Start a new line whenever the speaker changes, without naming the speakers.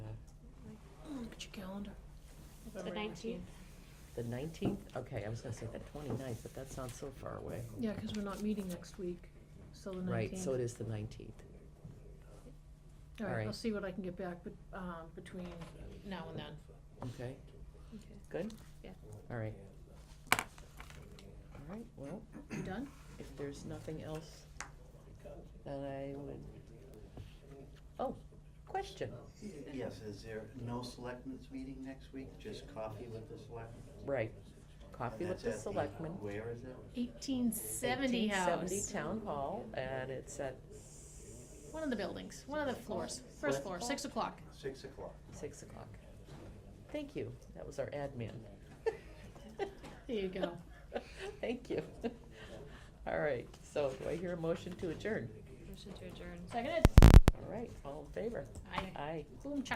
your calendar.
The
February
19th.
The nineteenth? Okay, I was gonna say the 29th, but that sounds so far away.
Yeah, because we're not meeting next week, so the nineteenth.
Right, so it is the nineteenth.
All
all
right, I'll
right.
see what I can get back, but, um, between now and then.
Okay,
Okay.
good?
Yeah.
All right. All right, well,
You done?
if there's nothing else, then I would, oh, question,
Yes, is there no selectmen's meeting next week, just coffee with the selectmen?
right.
And
Coffee with
that's
the
at
selectmen.
Where is it?
Eighteen seventy
Seventy
house,
Town Hall, and it's at
one of the buildings, one of the floors, first floor, six o'clock.
Six o'clock.
six o'clock. Thank you, that was our admin.
There you go.
Thank you. All right, so do I hear a motion to adjourn?
Motion to adjourn. Seconded.
All right, all in favor?
Aye.
Aye.
Boom, cha.